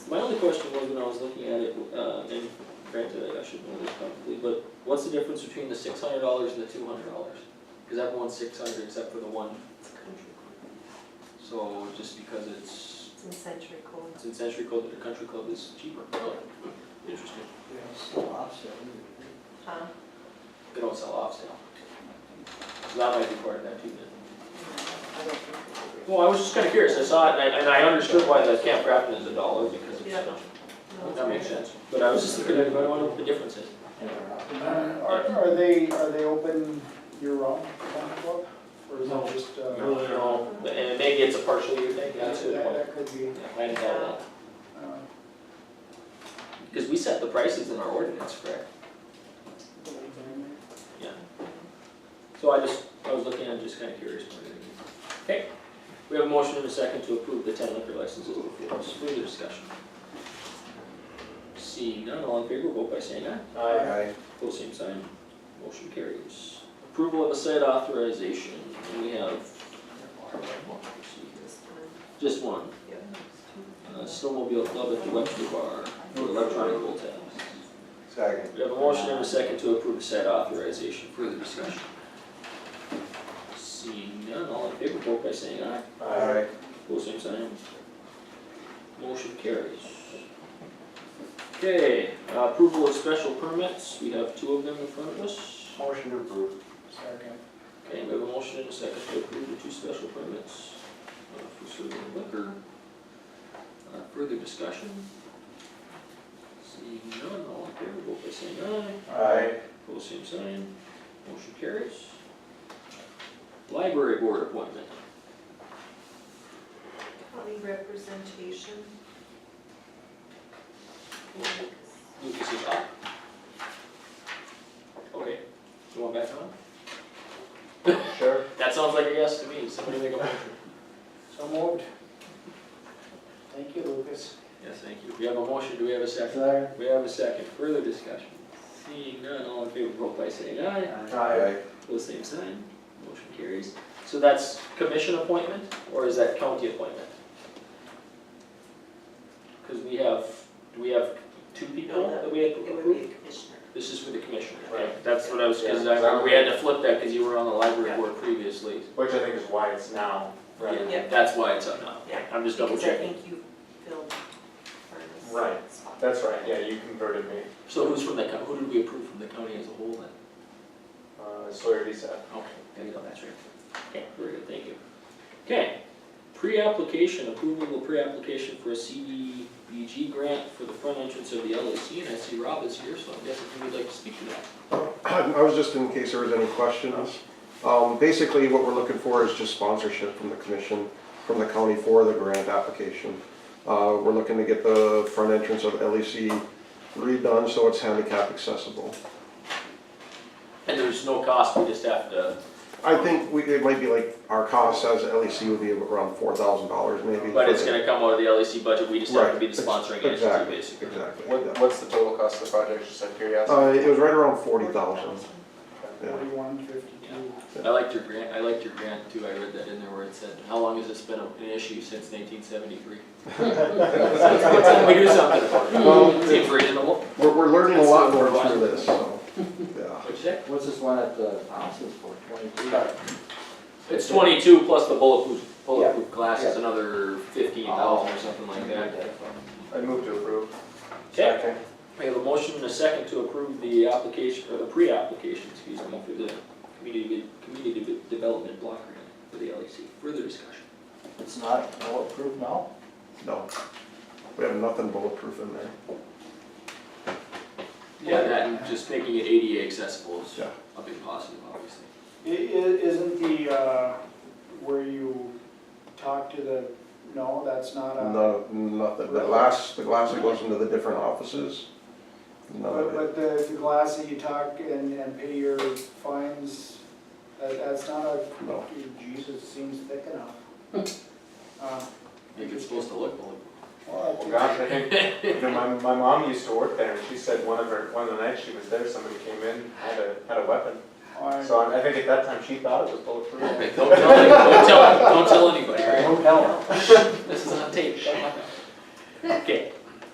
question was when I was looking at it, uh, and granted, I should know this probably, but what's the difference between the six hundred dollars and the two hundred dollars? Cause everyone's six hundred except for the one, It's a country club. so just because it's, It's in century code. it's in Century Club, the country club is cheaper, really, interesting. Yes, offset. Huh? They don't sell off sale. So that might be part of that too then. I don't think it is. Well, I was just kinda curious, I saw it and I, and I understood why the Camp Grafton is a dollar because it's, Yeah. uh, No, it's that makes sense, but I was just looking at it, I wonder what the difference is. Are, are they, are they open year-round, country club? Or is No. that just, uh? No, no, no, and maybe it's a partial year thing, That, that's a good point. that could be, Yeah, I didn't know uh, that, cause we set the prices in our ordinance, correct? So I just, I was looking, I'm just kinda curious. more than anything. Okay, we have a motion and a second to approve the ten liquor licenses before us, further discussion. Seeing none, all in favor, vote by saying aye. Aye. Pull same sign, motion carries. Approval of a site authorization, and we have. Just one. Just one, Yeah. uh, snowmobile club at the Webster Bar, for electronic roll tabs. Second. We have a motion and a second to approve the site authorization, further discussion. Seeing none, all in favor, vote by saying aye. Aye. Pull same sign. Motion carries. Okay, uh, approval of special permits, we have two of them in front of us. Motion to approve. second. Okay, we have a motion and a second to approve the two special permits uh, for serving liquor. Uh, Further discussion? Seeing none, all in favor, vote by saying aye. Aye. Pose same sign. Motion carries. Library board appointment. County representation. Lucas is up. Okay, you want back on? Sure. That sounds like a yes to me. Somebody make a motion. So moved. Thank you, Lucas. Yes, thank you. We have a motion. Do we have a second? Second. We have a second, further discussion. Seeing none, all in favor, vote by saying aye. Aye. Pose same sign, motion carries. So that's commission appointment, or is that county appointment? Because we have, do we have two people that we had It would be approved? a commissioner. This is for the commissioner, Right. okay, that's what I was, because I remember we had to flip that because you were on the library Yeah. board previously. Which I think is why it's now, rather Yeah. than, That's why it's up now. Yeah. I'm just double checking. Because I think you filled Vernon's Right. spot. that's right, yeah, you converted me, So who's from the, co- who did we approve from the county as a whole then? uh, Sawyer D. Seth. Okay, there you go, that's right. Okay, very good, thank you. Okay, pre-application, approval of pre-application for a CDBG grant for the front entrance of the LAC, and I see Rob is here, so I'm guessing he would like to speak to that. I was just in case there was any questions. Um, Basically, what we're looking for is just sponsorship from the commission, from the county for the grant application. Uh, We're looking to get the front entrance of LEC redone so it's handicap accessible. And there's no cost, we just have to, I think we, it might be like, our cost as LEC would be around four thousand dollars maybe. but it's for the- gonna come out of the LAC budget, we just have to Right, be the sponsoring entity, exactly, basically. Exactly. What, yeah. what's the total cost of the project, just out of curiosity? Uh, It was right around forty thousand. Yeah. Forty-one fifty-two. I liked your grant, I liked your grant too, I read that in there where it said, how long has this been an issue since nineteen seventy-three? It's time we do something about Well, it, seems reasonable. We're, we're learning a lot more through this, so, yeah. What'd you say? What's this one at the houses for, twenty-two? It's twenty-two plus the bulletproof, bulletproof glass is yeah. another fifteen thousand or something like that. Uh, I move to approve. Okay, we have a motion and a second to approve the application, or the pre-application, excuse me, for the community, community de- development block grant for the LEC. Further discussion? It's not all approved now? No, we have nothing bulletproof in there. Yeah, that and just making it ADA accessible is Yeah. a big positive, obviously. I- i- isn't the, uh, where you talk to the, no, that's not Uh, a. No, nothing, the glass, the glass that goes into the different offices, none But, of it. but the, the glass that you talk and, and pay your fines, that, that's not a, No. Jesus, seems thick enough. Uh, I think it's supposed to look bulletproof. well, Well, it- gosh, I think, Oh, you know, my, my mom used to work there, and she said one of her, one of the nights she was there, somebody came in, had a, had a weapon. I- So I I think at that time, she thought it was bulletproof. Don't tell, any- don't tell, don't tell anybody, right? Don't tell This is on tape. Okay,